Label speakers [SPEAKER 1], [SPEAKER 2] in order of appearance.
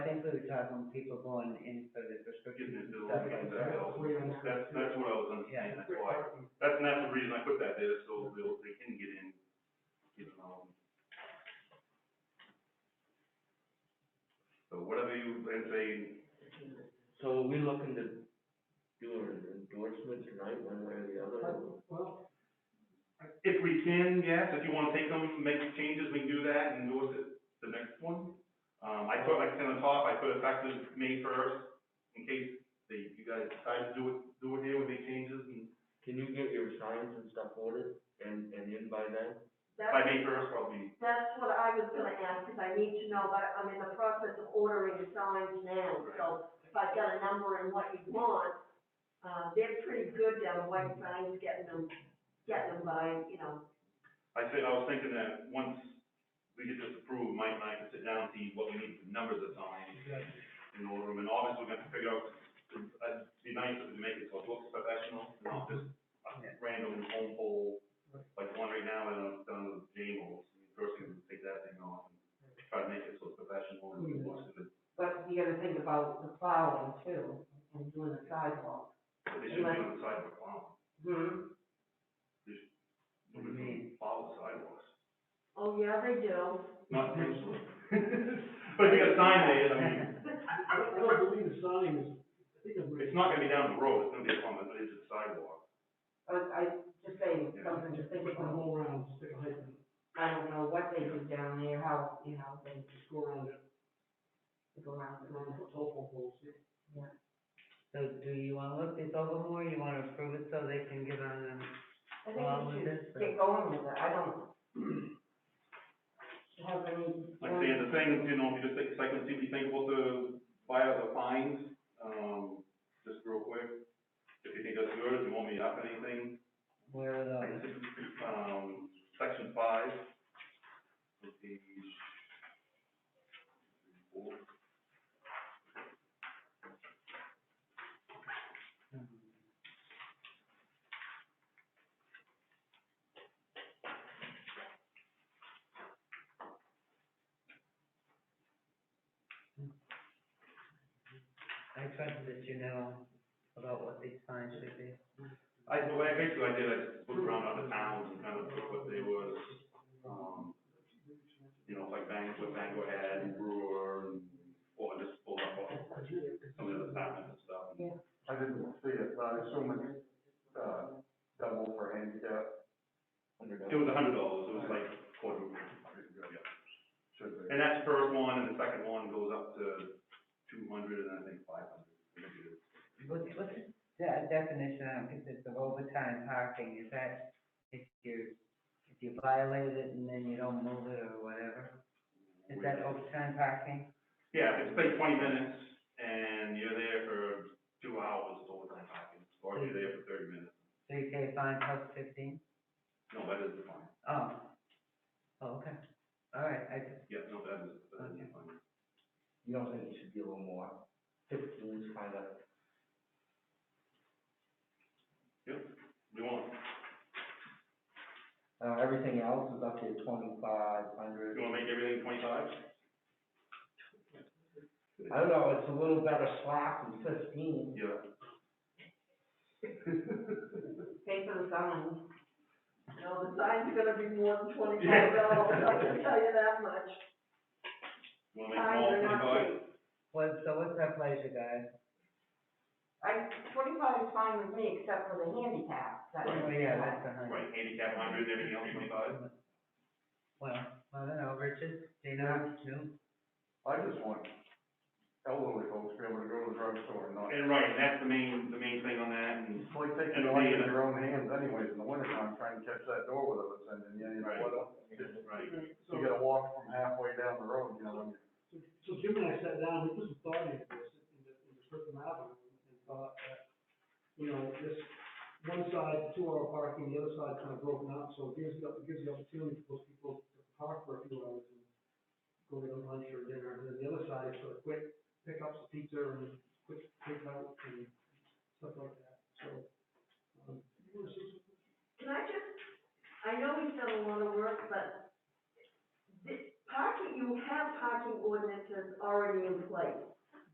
[SPEAKER 1] food truck when people going in for the prescriptions and
[SPEAKER 2] Getting into the
[SPEAKER 1] stuff like
[SPEAKER 2] lanes,
[SPEAKER 1] that.
[SPEAKER 2] uh, That's, that's what I was understanding, that's why, that's, and that's the reason I put that there, so they'll, they can get in, um, get in on. So whatever you, and say,
[SPEAKER 3] So are we looking to do an endorsement tonight, one way or the other?
[SPEAKER 4] Well,
[SPEAKER 2] If we can, yes, if you wanna take them, make changes, we can do that and endorse it the next one. Um, I put, like, on the top, I put effective May first, in case they, you guys decide to do it, do it here with make changes and
[SPEAKER 3] Can you get your signs and stuff ordered and, and in by then?
[SPEAKER 2] by
[SPEAKER 5] That's,
[SPEAKER 2] May first, probably.
[SPEAKER 5] that's what I was gonna ask, because I need to know, but I'm in the process of ordering signs now, so if I've got a number and what you want, uh, they're pretty good down white signs, getting them, getting them by, you know,
[SPEAKER 2] I said, I was thinking that once we get this approved, Mike and I can sit down and see what we need for numbers of signs in order them, and obviously we're gonna figure out, it'd be nice if we make it so it looks professional, not just a
[SPEAKER 1] Yeah.
[SPEAKER 2] random home pole, like one right now, and I'm done with Jamal's, first thing, is take that thing off, and try to make it so it's professional, and it looks good.
[SPEAKER 4] but you gotta think about the plowing too, and doing the sidewalk.
[SPEAKER 2] But they should be on the sidewalk, wow,
[SPEAKER 4] Hmm.
[SPEAKER 1] What do you mean?
[SPEAKER 2] follow the sidewalks,
[SPEAKER 5] oh, yeah, they do.
[SPEAKER 2] not intentionally. But if you got a sign there, I mean,
[SPEAKER 4] I don't, I don't believe the sign is, I think it's,
[SPEAKER 2] it's not gonna be down the road, it's gonna be on the edge of the sidewalk.
[SPEAKER 4] I, I just saying, something to think
[SPEAKER 6] the
[SPEAKER 4] about.
[SPEAKER 6] whole round, stick a hydrant,
[SPEAKER 4] I don't know what they do down there, how, you know, they
[SPEAKER 6] just go around it,
[SPEAKER 4] go around the
[SPEAKER 6] around
[SPEAKER 4] room.
[SPEAKER 6] the telephone poles.
[SPEAKER 1] So do you wanna look this over more, you wanna approve it so they can get on and
[SPEAKER 4] I
[SPEAKER 1] Well, with
[SPEAKER 4] think we
[SPEAKER 1] this,
[SPEAKER 4] should get going with it, I don't have any.
[SPEAKER 2] Like saying the things, you know, if you just take a second, see what you think about the, buy out the fines, um, just real quick. If you think that's good, if you want me to up anything,
[SPEAKER 1] where are those?
[SPEAKER 2] um, section five. on Page. four.
[SPEAKER 1] I trust that you know about what these signs should be.
[SPEAKER 2] I, the way, I basically I did, I looked around other towns and kind of took what they was, um, you know, like Bang, what Bangor had, and Brewer, and, well, I just pulled up all some of the other towns and stuff.
[SPEAKER 7] I didn't see it, but I assume it's, uh, double for handicap,
[SPEAKER 2] It was a hundred dollars, it was like quarter.
[SPEAKER 7] should be.
[SPEAKER 2] And that's first one, and the second one goes up to two hundred, and I think five hundred.
[SPEAKER 1] What's, what's the de- definition on, if it's of overtime parking, is that if you, if you violate it and then you don't move it or whatever? Is that overtime parking?
[SPEAKER 2] Yeah, if it's been twenty minutes, and you're there for two hours, it's overtime parking, or if you're there for thirty minutes,
[SPEAKER 1] So you pay a fine plus fifteen?
[SPEAKER 2] no, that is fine,
[SPEAKER 1] Oh, oh, okay, all right, I just,
[SPEAKER 2] yeah, no, that is, that is fine.
[SPEAKER 3] You don't think it should be a little more? Fifteen is kind of,
[SPEAKER 2] We want,
[SPEAKER 3] uh, everything else is up to twenty-five
[SPEAKER 2] you
[SPEAKER 3] hundred.
[SPEAKER 2] wanna make everything twenty-five?
[SPEAKER 3] I don't know, it's a little better slack than fifteen.
[SPEAKER 2] Yeah.
[SPEAKER 4] Pay for the sign.
[SPEAKER 5] No, the sign's gonna be more than twenty-five dollars, I can tell you that much.
[SPEAKER 2] You Wanna make them all
[SPEAKER 5] Signs are not
[SPEAKER 2] twenty-five?
[SPEAKER 5] cheap.
[SPEAKER 1] what, so what's our pleasure, guys?
[SPEAKER 4] I, twenty-five is fine with me, except for the handicap, that
[SPEAKER 1] Oh,
[SPEAKER 4] is,
[SPEAKER 1] yeah, that's a hundred.
[SPEAKER 2] Right, handicap hundred, everything else twenty-five?
[SPEAKER 1] Well, I don't know, Richard, do you know, no?
[SPEAKER 7] I just want elderly folks to be able to go to the drugstore and not,
[SPEAKER 2] And right, and that's the main, the main thing on that, and
[SPEAKER 7] it's like taking
[SPEAKER 2] And
[SPEAKER 7] life
[SPEAKER 2] the-
[SPEAKER 7] in your own hands anyways, in the wintertime, trying to catch that door with us, and, you know,
[SPEAKER 2] Right.
[SPEAKER 7] what else?
[SPEAKER 2] Right.
[SPEAKER 7] You gotta walk from halfway down the road, you know, when you-
[SPEAKER 6] So Jim and I sat down, we put some thought into this, in the, in the Griffin Avenue, and thought that, you know, this, one side, two hour parking, the other side kind of broken up, so it gives the, it gives the opportunity for those people to park for a few hours and go get a lunch or dinner, and then the other side is for quick pickups of pizza and quick takeout and stuff like that, so. um, it was just-
[SPEAKER 5] Can I just, I know we've done a lot of work, but the parking, you have parking ordinances already in place.